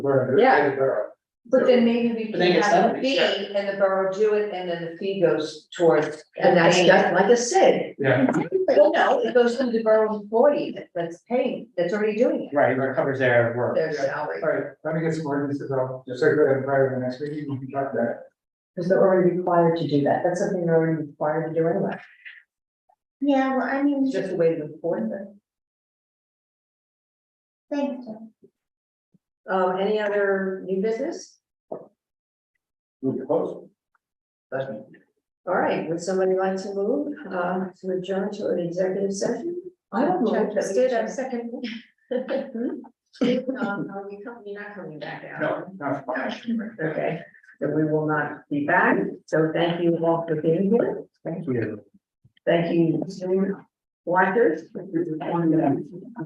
We're- Yeah. we're- But then maybe we But can then it's have a seventy, fee sure. and the borough do it and then the fee goes towards. And that's just like a SID. Yeah, Well, no, it goes to the borough employee that- that's paying, that's already doing it, Right, where it covers their work. their salary. all right, let me get some ordinances out, just so that prior to the next meeting, we can talk about because they're already required to do that, that's something they're already required to do anyway, Yeah, well, I mean, it's just a way to enforce it. thank you. Um, any other new business? Move to close. All right, would somebody like to move, uh, to adjourn to an executive session? I don't know. Check, Sid, I second. Um, Are we coming, you're not coming back out? No, no. Okay, so we will not be back, so thank you all for being here, Thank you. thank you, Zoom watchers.